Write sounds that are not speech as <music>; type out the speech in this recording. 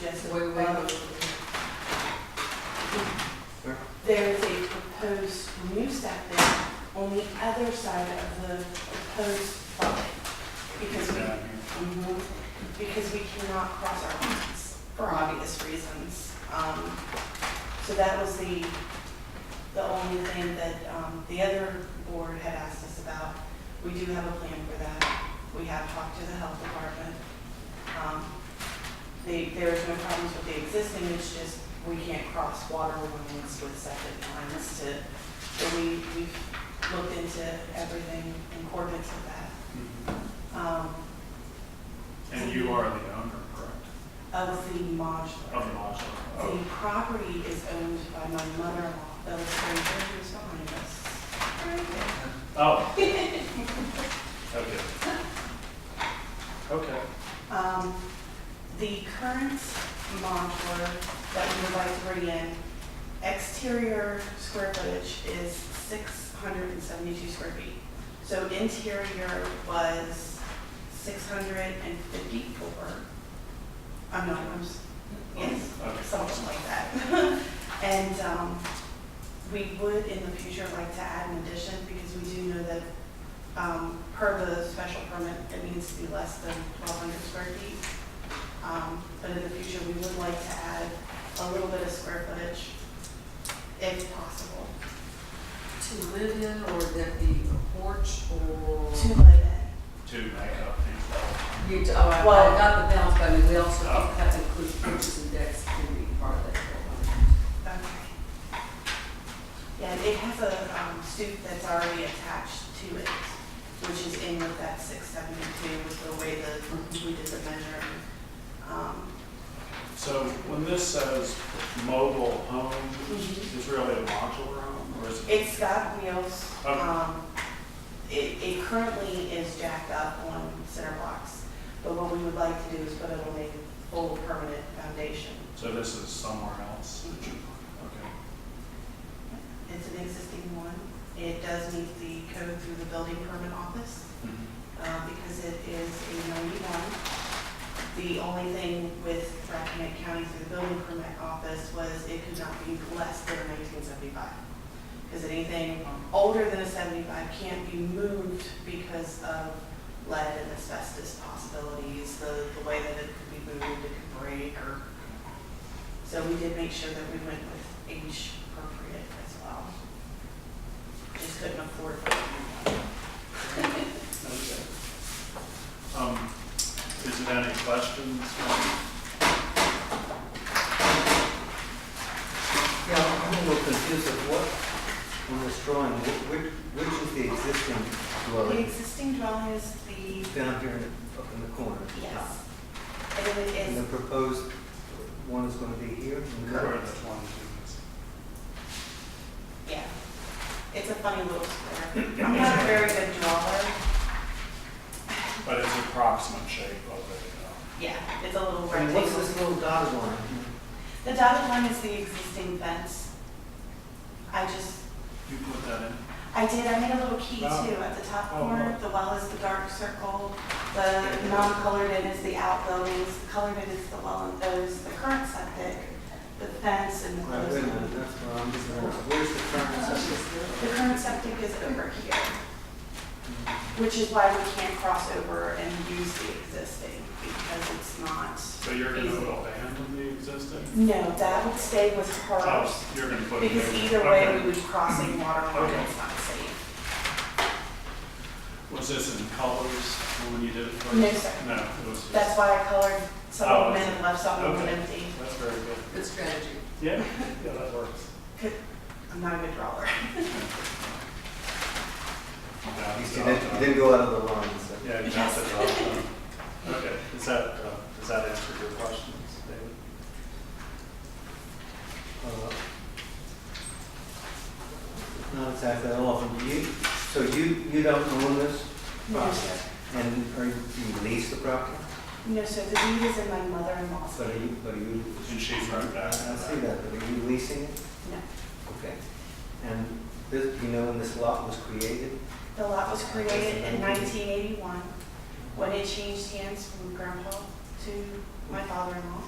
just Wait, wait, wait. above. There is a proposed new step there on the other side of the proposed line. Because we, Mhm. because we cannot cross our lines for obvious reasons. Um, So that was the, the only thing that um, the other board had asked us about. We do have a plan for that. We have talked to the health department. Um, They, there is no problems with the existing, it's just we can't cross water lines with septic lines to, so we, we've looked into everything in accordance with that. Um, And you are the owner, correct? Oh. Of the modular. Of the module? The property is owned by my mother-in-law, Bella Fraser, who's behind us. Oh. <laughs> Okay. Okay. Um, The current modular that we would like to bring in, exterior square footage is 672 square feet. So interior was 654. I'm not, I'm, s- yes. Okay. something like that. <laughs> And um, we would in the future like to add an addition because we do know that um, per the special permit, it needs to be less than 1,200 square feet. Um, But in the future, we would like to add a little bit of square footage if possible To live in or that the porch or? to live in. To make up these You, to- oh, I, I Well- got the balance, but I mean, we also Oh. have to include porches and decks can be part of that. Okay. Yeah, it has a um, stoop that's already attached to it, which is in with that six seventy-two with the way that we did the measuring. Um, So when this says mobile home, is really a modular home or is it? It's got wheels. Okay. Um, It, it currently is jacked up on center blocks, but what we would like to do is put it on a full permanent foundation. So this is somewhere else? that you- Okay. It's an existing one. It does meet the code through the building permit office. Mm-hmm. uh, because it is a 91. The only thing with Rappahannock County through the building permit office was it could not be less than 1975. Because anything older than a 75 can't be moved because of lead and asbestos possibilities, the, the way that it could be moved, it could break, or, so we did make sure that we went with age appropriate as well. Just couldn't afford the new one. Okay. Um, is it any questions? Yeah, I'm a little confused of what, on this drawing, wh- which, which is the existing The dwelling existing dwelling is the, down here in the, up in the corner? at the yes. top? And it And the is, proposed one is gonna be here? in the middle? Or the twenty-two? yeah. It's a funny little square. I'm not a very good drawer. But it's approximate shape of it, you know? Yeah, it's a little I mean, what's rectangle. this little dotted line? The dotted line is the existing fence. I just, You put that in? I did, I made a little key too Oh. at the top Oh, corner. The well is the dark circle. The non-colored in is the outbuildings. The Colored in is the well and those, the current septic, the fence and the Right, wait a closed minute, one. that's where I'm just, where's the current septic? The current septic is over here. Which is why we can't cross over and use the existing, because it's not. So you're gonna feasible. abandon the existing? No, that would stay with hers, Oh, you're gonna put it. because in. either way, Okay. we would be crossing water line, Okay. it's not safe. Was this in colors when you did it first? No, sir. No, it was just. That's why I colored some Oh, of them in and left some of them okay. empty. That's very good. Good strategy. Yeah, yeah, that works. I'm not a good drawer. Yeah, You it's see, all that- you done. didn't go out of the line, so. Yeah, you got it all done. Okay, is that, uh, does that answer your questions, David? Uh, Not exactly that often, do you, so you, you don't own this No, sir. and are you, you lease the property? No, sir, the deed is in my mother-in-law's. But are you, but are you? And she's right I I back. see that, but are you leasing it? No. Okay. And this, you know, when this lot was created, The lot was created in 1981, when it changed hands from grandpa to my father-in-law.